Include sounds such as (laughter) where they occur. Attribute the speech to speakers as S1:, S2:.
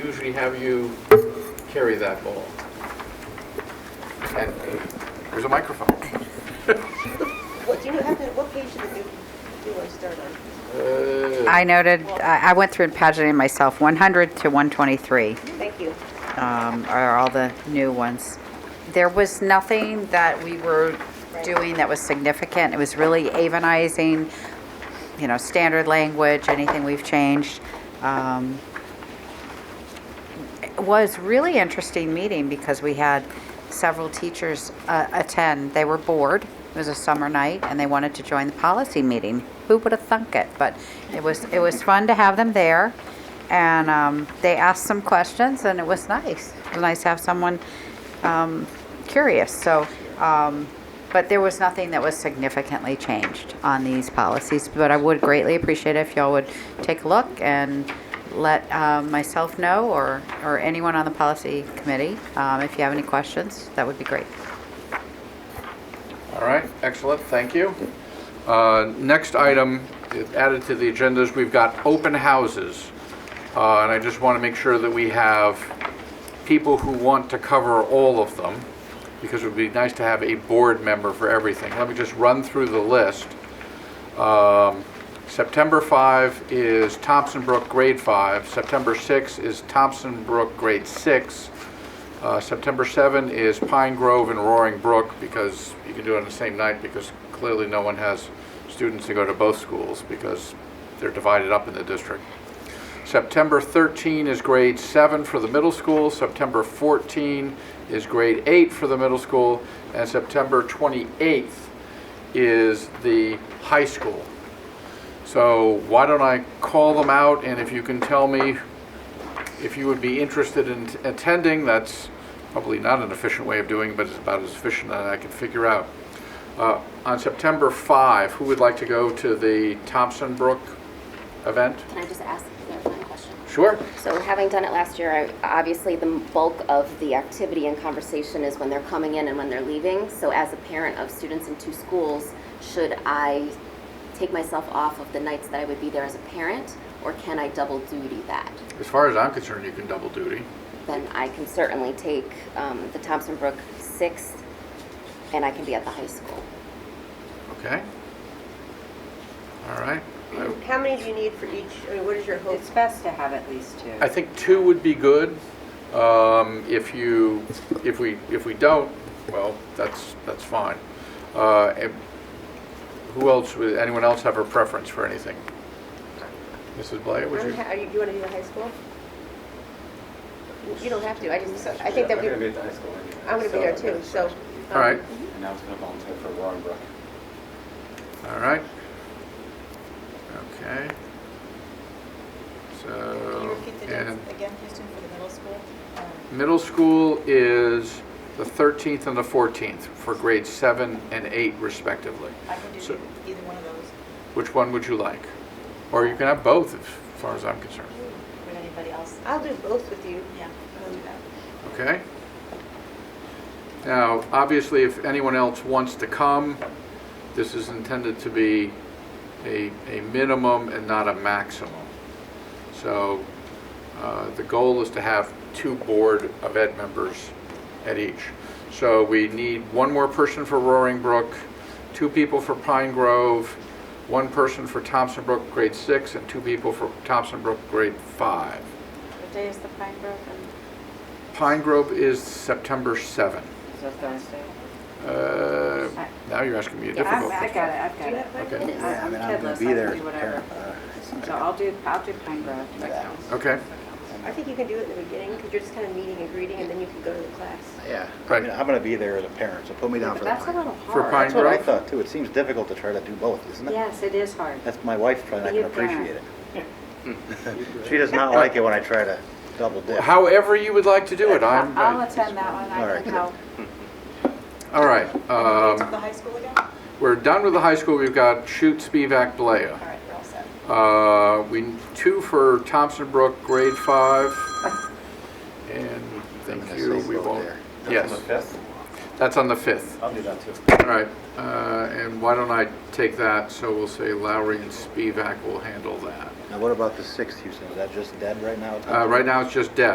S1: usually have you carry that ball. uh,
S2: And there's a microphone.
S3: What do you have to, what page did you, do I start on?
S1: Uh,
S4: I noted, I I went through and paginated myself, 100 to 123
S3: Thank you.
S4: um, are all the new ones. There was nothing that we were doing that was significant. It was really avonizing, you know, standard language, anything we've changed. Um, It was really interesting meeting because we had several teachers uh, attend. They were bored. It was a summer night, and they wanted to join the policy meeting. Who would have thunk it? But it was it was fun to have them there, and um, they asked some questions, and it was nice. It was nice to have someone um, curious. So, um, but there was nothing that was significantly changed on these policies. But I would greatly appreciate it if y'all would take a look and let um, myself know or, or anyone on the policy committee um, if you have any questions. That would be great.
S2: All right, excellent, thank you. Uh, Next item added to the agenda is we've got open houses. Uh, And I just want to make sure that we have people who want to cover all of them, because it would be nice to have a board member for everything. Let me just run through the list. Um, September 5 is Thompson Brook Grade 5. September 6 is Thompson Brook Grade 6. Uh, September 7 is Pine Grove and Roaring Brook, because you can do it on the same night, because clearly no one has students to go to both schools, because they're divided up in the district. September 13 is grade 7 for the middle school, September 14 is grade 8 for the middle school, and September 28th is the high school. So why don't I call them out, and if you can tell me if you would be interested in attending, that's probably not an efficient way of doing, it, but it's about as efficient as I can figure out. Uh, On September 5, who would like to go to the Thompson Brook event?
S5: Can I just ask a clarifying question?
S2: Sure.
S5: So having done it last year, I- obviously the bulk of the activity and conversation is when they're coming in and when they're leaving. So as a parent of students in two schools, should I take myself off of the nights that I would be there as a parent? Or can I double duty that?
S2: As far as I'm concerned, you can double duty.
S5: Then I can certainly take um, the Thompson Brook sixth and I can be at the high school.
S2: Okay? All right. I-
S3: How many do you need for each, I mean, what is your hope?
S6: It's best to have at least two.
S2: I think two would be good. Um, If you, if we, if we don't, well, that's, that's fine. Uh, and Who else, would anyone else have a preference for anything? Mrs. Blair, would
S3: I'm
S2: you?
S3: ha- Are you, you wanna do the high school? You don't have to, I just, I think that we,
S7: I'm
S3: I'm
S7: gonna be at the high school
S3: gonna be
S7: anyway. so
S3: there
S7: I'm gonna-
S3: too, so. um,
S2: All right,
S7: And I was gonna volunteer for Roaring Brook.
S2: all right. Okay. So, Um, and
S8: again, Houston, for the middle school? Um,
S2: middle school is the 13th and the 14th for grades seven and eight respectively.
S8: I can
S2: So-
S8: do either one of those.
S2: Which one would you like? Or you can have both, as far as I'm concerned.
S8: Would anybody else?
S3: I'll do both with you.
S8: Yeah, I'll do that.
S2: Okay? Now, obviously, if anyone else wants to come, this is intended to be a, a minimum and not a maximum. So uh, the goal is to have two Board of Ed members at each. So we need one more person for Roaring Brook, two people for Pine Grove, one person for Thompson Brook Grade 6, and two people for Thompson Brook Grade 5.
S8: What day is the Pine Grove? and-
S2: Pine Grove is September 7.
S6: Is that Thursday?
S2: Uh, Now you're asking me a
S6: I've
S2: difficult
S6: I've
S2: question.
S6: got it, I've got
S3: Do you
S6: it.
S3: have
S2: Okay.
S3: mine?
S5: It is.
S6: I-
S5: I
S6: I'm
S7: And I'm gonna
S6: kidless,
S7: be
S6: I
S7: there
S6: can do
S7: as a
S6: whatever.
S7: parent, uh,
S6: So I'll do, I'll do Pine Grove, if that counts.
S2: Okay,
S3: I think you can do it in the beginning, because you're just kind of meeting and greeting, and then you can go to the class.
S7: Yeah, I
S2: Right.
S7: mean, I'm gonna be there as a parent, so put me down
S6: But
S7: for
S6: that's a
S7: that.
S6: little
S2: For
S6: hard.
S2: Pine
S7: That's what I
S2: Grove?
S7: thought too, it seems difficult to try to do both, isn't it?
S6: Yes, it is hard.
S7: That's my wife trying, I
S6: Be
S7: can
S6: a parent.
S7: appreciate it. (laughs) She does not like it when I try to double dip.
S2: however you would like to do it, I'm,
S6: I'll
S2: uh,
S6: attend that one,
S7: All
S6: I
S7: right.
S6: can help.
S2: all right.
S8: To the
S2: um,
S8: high school again?
S2: We're done with the high school, we've got Shoot, Spivak, Blea.
S8: All right, we're all set.
S2: Uh, We, two for Thompson Brook, grade five, and
S7: I'm
S2: thank
S7: gonna
S2: you,
S7: say
S2: we
S7: both
S2: won't.
S7: there.
S2: Yes,
S7: fifth?
S2: that's on the 5th.
S7: I'll do that too.
S2: All right, uh, and why don't I take that, so we'll say Lowry and Spivak will handle that.
S7: Now, what about the sixth, Houston, is that just dead right now?
S2: Uh, Right now, it's just Deb.